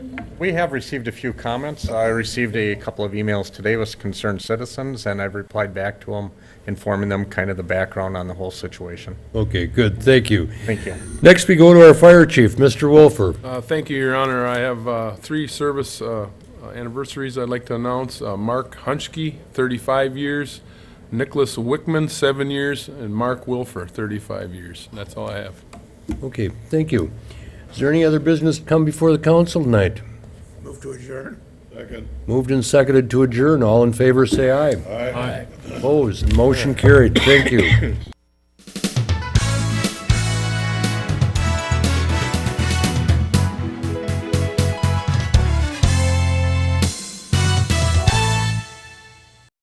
we have received a few comments. I received a couple of emails today with concerned citizens, and I've replied back to them, informing them kind of the background on the whole situation. Okay, good, thank you. Thank you. Next, we go to our fire chief, Mr. Wolfer. Uh, Thank you, Your Honor. I have uh, three service uh, anniversaries I'd like to announce. Uh, Mark Hunchke, 35 years, Nicholas Wickman, seven years, and Mark Wilfer, 35 years. That's all I have. Okay, thank you. Is there any other business to come before the council tonight? Move to adjourn. Moved and seconded to adjourn, all in favor, say aye. Aye. Opposed, motion carried, thank you.